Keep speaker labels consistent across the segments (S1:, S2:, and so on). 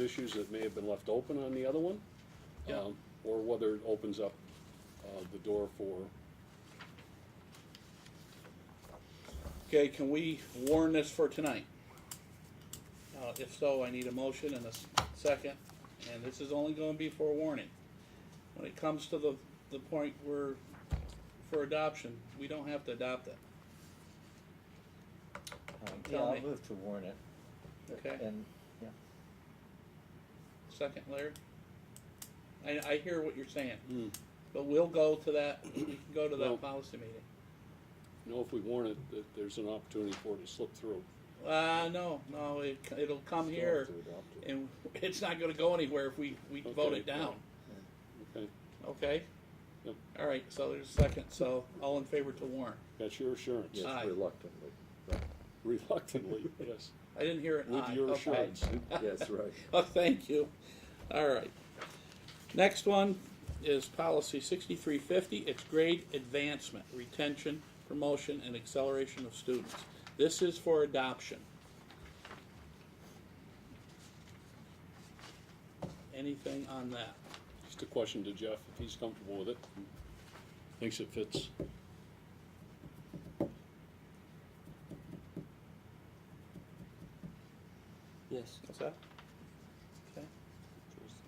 S1: issues that may have been left open on the other one.
S2: Yeah.
S1: um, Or whether it opens up, uh, the door for,
S2: Okay, can we warn this for tonight? Uh, if so, I need a motion and a s- second, and this is only gonna be for a warning. When it comes to the, the point where, for adoption, we don't have to adopt it,
S3: Um, Yeah,
S2: Tell me.
S3: I'll move to warn it.
S2: okay?
S3: And, yeah,
S2: Second, Larry? I, I hear what you're saying,
S1: Hmm.
S2: but we'll go to that, we can go to
S1: Well-
S2: that policy meeting.
S1: you know, if we warn it, that there's an opportunity for it to slip through.
S2: Uh, no, no, it, c- it'll come here,
S3: to adopt it.
S2: and it's not gonna go anywhere if we, we vote
S1: Okay,
S2: it down.
S1: Okay,
S2: Okay?
S1: Yep.
S2: All right, so there's a second, so all in favor to warn.
S1: that's your assurance,
S2: Aye.
S4: Yes, reluctantly.
S1: reluctantly, yes,
S2: I didn't hear an
S1: with
S2: aye.
S1: your
S2: Okay.
S1: assurance.
S4: Yes, right.
S2: Oh, thank you. All right. Next one is policy sixty-three fifty, it's grade advancement, retention, promotion, and acceleration of students. This is for adoption. Anything on that?
S1: Just a question to Jeff, if he's comfortable with it, thinks it fits.
S5: Yes.
S2: What's that? Okay,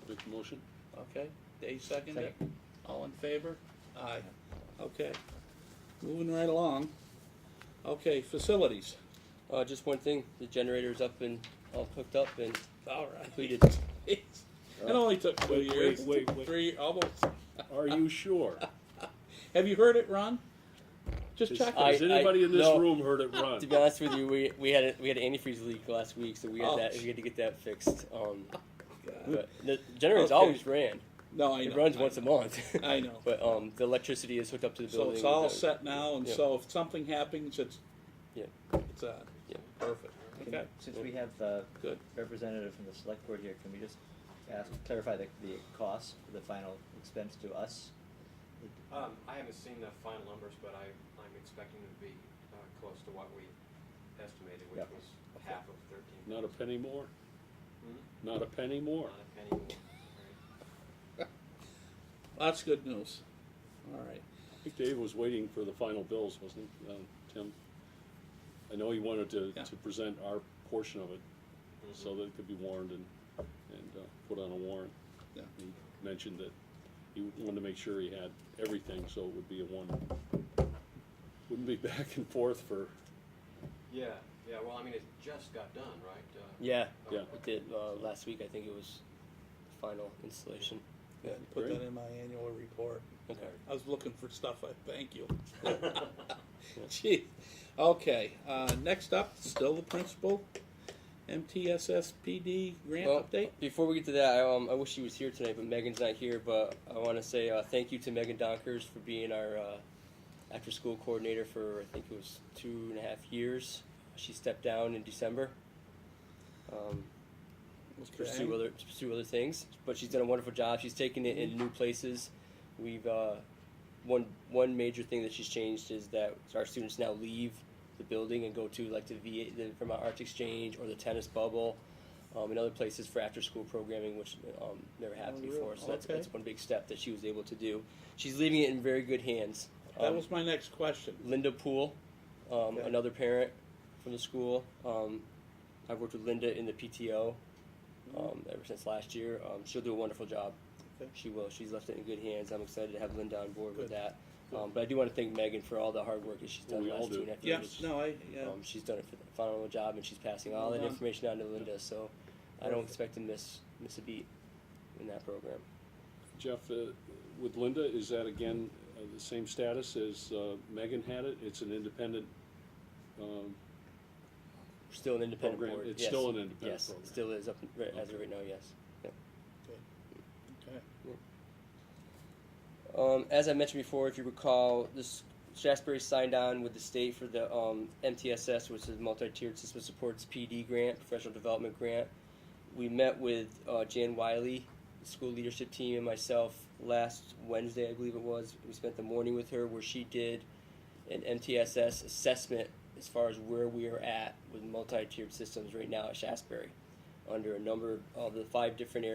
S1: Make the motion?
S2: okay, Dave seconded it. All in favor? Aye. Okay. Moving right along. Okay, facilities.
S5: Uh, just one thing, the generator's up and all hooked up and
S2: All
S5: completed.
S2: right. It only took two
S1: Wait,
S2: years.
S1: wait, wait, wait.
S2: Three, almost.
S1: Are you sure?
S2: Have you heard it, Ron? Just
S1: Has
S2: check
S5: I-
S1: has anybody in this
S5: no.
S1: room heard it run?
S5: To be honest with you, we, we had a, we had an antifreeze leak last week, so we had
S2: Oh.
S5: that we had to get that fixed. Um,
S2: it.
S5: but the generator's
S2: Okay.
S5: always ran.
S2: No, I know.
S5: It runs
S2: I
S5: once a
S2: know.
S5: month.
S2: I know.
S5: but um, the electricity is hooked up to the
S2: So
S5: building.
S2: it's all
S5: The-
S2: set now, and
S5: Yeah.
S2: so if something happens, it's,
S5: Yeah.
S2: it's on.
S5: Yeah.
S2: Perfect.
S3: Can-
S2: Okay,
S3: Since we have the
S2: good.
S3: representative from the select board here, can we just ask, clarify the, the cost, the final expense to us?
S6: Um, I haven't seen the final numbers, but I, I'm expecting them to be, uh, close to what we estimated, which
S3: Yeah.
S6: was half of thirteen.
S1: Not a penny more?
S6: Hmm?
S1: Not a penny more?
S6: Not a penny more, right?
S2: That's good news. All right.
S1: I think Dave was waiting for the final bills, wasn't he, um, Tim? I know he wanted to,
S2: Yeah.
S1: to present our portion of it, so that it could be warned and, and, uh, put on a warrant.
S2: Yeah.
S1: He mentioned that he wanted to make sure he had everything, so it would be a one, wouldn't be back and forth for,
S6: Yeah, yeah, well, I mean, it just got done, right? Uh,
S5: Yeah,
S1: Yeah.
S5: we did uh, last week. I think it was the final installation. Yeah.
S2: Put that
S1: Great.
S2: in my annual report.
S5: Okay.
S2: I was looking for stuff. I thank you. Gee, okay. Uh, next up, still the principal, MTSSPD grant
S5: Well,
S2: update.
S5: Before we get to that, I, um, I wish she was here tonight, but Megan's not here. But I want to say uh, thank you to Megan Donkers for being our uh, after-school coordinator for I think it was two and a half years. She stepped down in December um, to pursue other to pursue other things, but she's done a wonderful job. She's taken it in new places. We've uh, one one major thing that she's changed is that our students now leave the building and go to like the VA, the Vermont Arts Exchange or the tennis bubble um, and other places for after school programming, which um, never happened
S2: Oh, really?
S5: before. So that's,
S2: Okay.
S5: that's one big step that she was able to do. She's leaving it in very good hands.
S2: That
S5: Um,
S2: was my next question.
S5: Linda Poole, um,
S2: Okay.
S5: another parent from the school. Um, I've worked with Linda in the PTO um, ever since last year. Um, she'll do a wonderful job.
S2: Mm-hmm. Okay.
S5: She will. She's left it in good hands. I'm excited to have Linda on board with
S2: Good.
S5: that. Um, but I do want to thank Megan for all the hard work that she's
S1: Well,
S5: done
S1: we
S5: the last
S1: all
S5: two
S1: do.
S5: and a half
S2: Yeah,
S5: years.
S2: no, I, yeah,
S5: Um, she's done a ph- phenomenal job, and she's passing all
S2: Well
S5: that
S2: done.
S5: information down to Linda. So I don't
S2: Perfect.
S5: expect to miss miss a beat in that program.
S1: Jeff, uh, with Linda, is that again, uh, the same status as, uh, Megan had it? It's an independent, um,
S5: We're still an independent
S1: Program.
S5: board.
S1: It's
S5: yes.
S1: still an independent
S5: Yes,
S1: program.
S5: still is up right, as of
S1: Okay.
S5: right now. Yes.
S2: okay.
S5: Um, as I mentioned before, if you recall, this Shasbury signed on with the state for the um, MTSS, which is multi-tiered system supports PD grant, professional development grant. We met with uh, Jan Wiley, the school leadership team, and myself last Wednesday, I believe it was. We spent the morning with her, where she did an MTSS assessment as far as where we are at with multi-tiered systems right now at Shasbury. under a number of the five different areas